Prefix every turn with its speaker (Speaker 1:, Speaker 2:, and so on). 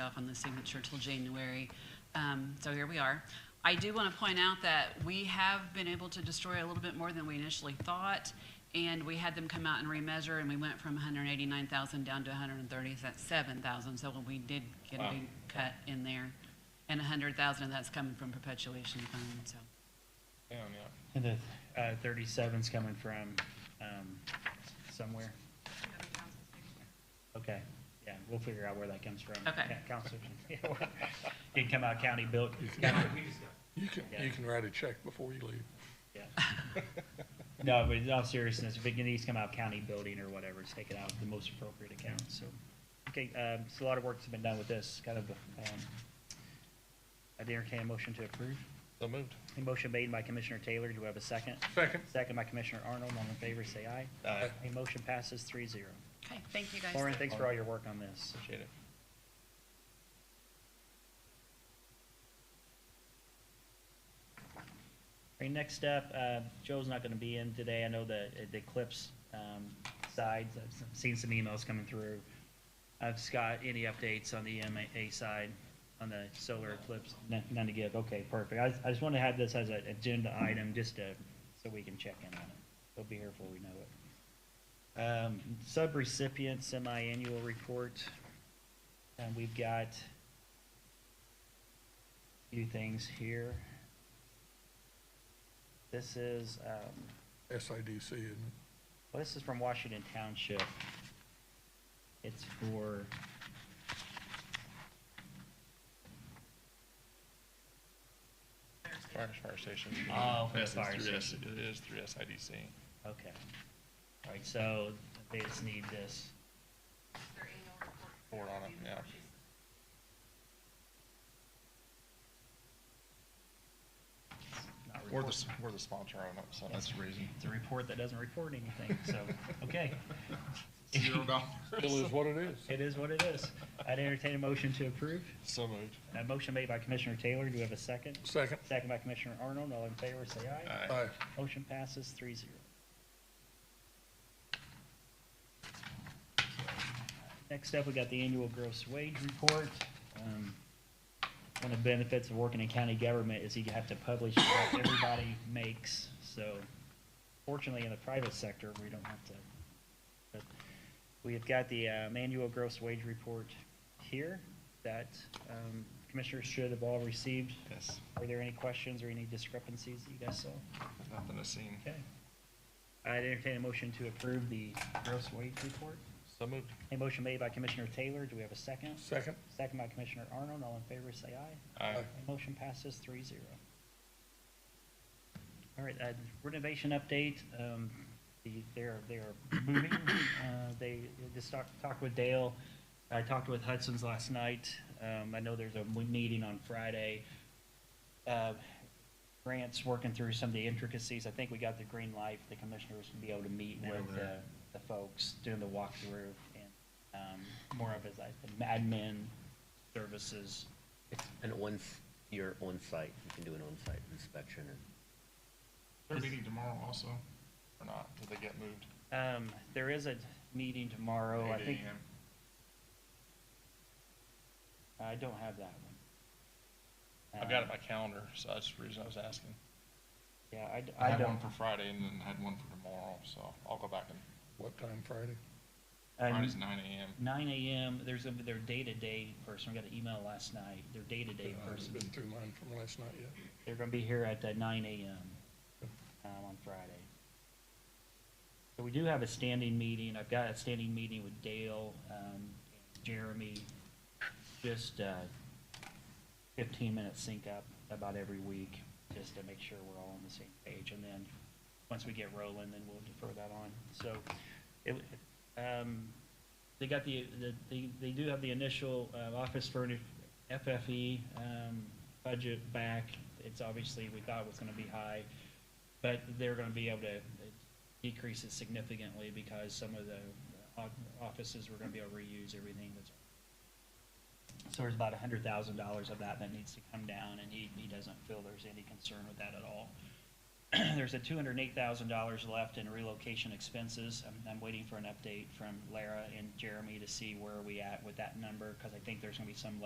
Speaker 1: off on the signature till January. Um, So here we are. I do want to point out that we have been able to destroy a little bit more than we initially thought, and we had them come out and remeasure, and we went from 189,000 down to 137,000, so we did get a
Speaker 2: Wow.
Speaker 1: big cut in there. And 100,000 of that's coming from perpetuation fund, so.
Speaker 2: Damn, yeah.
Speaker 3: And the uh, 37's coming from um, somewhere? Okay, yeah, we'll figure out where that comes from.
Speaker 1: Okay.
Speaker 3: Yeah, Counselor, yeah, well, it can come out county built.
Speaker 4: You can,
Speaker 3: Yeah.
Speaker 4: you can write a check before you leave.
Speaker 3: yeah. No, but in all seriousness, if it needs to come out county building or whatever, take it out of the most appropriate account, so. Okay, um, so a lot of work's been done with this, kind of, um, I'd entertain a motion to approve.
Speaker 2: So moved.
Speaker 3: A motion made by Commissioner Taylor, do we have a second?
Speaker 4: Second.
Speaker 3: Second by Commissioner Arnold, all in favor, say aye.
Speaker 2: Aye.
Speaker 3: A motion passes three zero.
Speaker 1: Okay, thank you guys.
Speaker 3: Lauren, thanks for all your work on this.
Speaker 2: Appreciate it.
Speaker 3: Our next up, uh, Joe's not gonna be in today, I know the, the Eclipse, um, sides, I've seen some emails coming through. I've Scott, any updates on the EMA side, on the solar eclipse? None, none to give, okay, perfect, I, I just wanna have this as an agenda item, just to, so we can check in on it. They'll be here before we know it. Um, subrecipient semi-annual report, and we've got a few things here. This is, um,
Speaker 4: SIDC, isn't it?
Speaker 3: well, this is from Washington Township. It's for.
Speaker 2: Fire, fire station.
Speaker 3: Oh, for the
Speaker 2: Yes, it's
Speaker 3: fire
Speaker 2: through
Speaker 3: station.
Speaker 2: S- It is through SIDC.
Speaker 3: Okay. All right, so they just need this.
Speaker 2: Forward on it, yeah.
Speaker 3: not
Speaker 2: We're
Speaker 3: report-
Speaker 2: the, s- we're the sponsor on it, so that's the reason.
Speaker 3: It's a report that doesn't report anything, so, okay.
Speaker 4: Still is what it is.
Speaker 3: It is what it is. I'd entertain a motion to approve.
Speaker 2: So moved.
Speaker 3: A motion made by Commissioner Taylor. Do we have a second?
Speaker 4: Second.
Speaker 3: Second by Commissioner Arnold. All in favor, say aye.
Speaker 2: Aye.
Speaker 4: Aye.
Speaker 3: Motion passes three zero. Next up, we got the annual gross wage report. Um, One of the benefits of working in county government is you have to publish what everybody makes, so fortunately, in the private sector, we don't have to. But We have got the um, annual gross wage report here that um, commissioners should have all received.
Speaker 2: Yes,
Speaker 3: Are there any questions or any discrepancies that you guys saw?
Speaker 2: nothing to see.
Speaker 3: Okay. I'd entertain a motion to approve the gross wage report.
Speaker 2: So moved.
Speaker 3: A motion made by Commissioner Taylor, do we have a second?
Speaker 4: Second.
Speaker 3: Second by Commissioner Arnold, all in favor, say aye.
Speaker 2: Aye.
Speaker 3: The Motion passes three zero. All right, uh, renovation update, um, the, they're, they're moving, uh, they, just talked, talked with Dale. I talked with Hudson's last night, um, I know there's a meeting on Friday. Uh, Grant's working through some of the intricacies, I think we got the green light, for the commissioners to be able to meet with the, the folks doing the walkthrough and, um, more of his, like, the admin services,
Speaker 5: It's an on, you're on site, you can do an on site inspection and
Speaker 2: They're meeting tomorrow also, or not? Did they get moved?
Speaker 3: Um, there is a meeting tomorrow, I
Speaker 2: 8
Speaker 3: think,
Speaker 2: a.m.?
Speaker 3: I don't have that one.
Speaker 2: I've got it
Speaker 3: Um,
Speaker 2: by calendar, so that's the reason I was asking.
Speaker 3: Yeah, I d-
Speaker 2: I
Speaker 3: I
Speaker 2: had one
Speaker 3: don't,
Speaker 2: for Friday and then had one for tomorrow, so I'll go back and,
Speaker 4: What time Friday?
Speaker 2: Friday's
Speaker 3: and
Speaker 2: nine AM.
Speaker 3: nine AM, there's a, their day-to-day person, we got an email last night, their day-to-day
Speaker 2: Uh,
Speaker 4: I haven't
Speaker 3: person,
Speaker 4: been through mine from last night yet.
Speaker 3: they're gonna be here at uh, nine AM, um, on Friday. So we do have a standing meeting, I've got a standing meeting with Dale, um, Jeremy, just, uh, fifteen-minute sync up about every week, just to make sure we're all on the same page, and then, once we get rolling, then we'll defer that on, so, it, um, they got the, the, they, they do have the initial, uh, office furnish, FFE, um, budget back, it's obviously, we thought was gonna be high, but they're gonna be able to uh, decrease it significantly because some of the o- offices were gonna be able to reuse everything that's. So there's about a hundred thousand dollars of that that needs to come down, and he, he doesn't feel there's any concern with that at all. There's a two hundred and eight thousand dollars left in relocation expenses. I'm, I'm waiting for an update from Lara and Jeremy to see where are we at with that number, cause I think there's gonna be some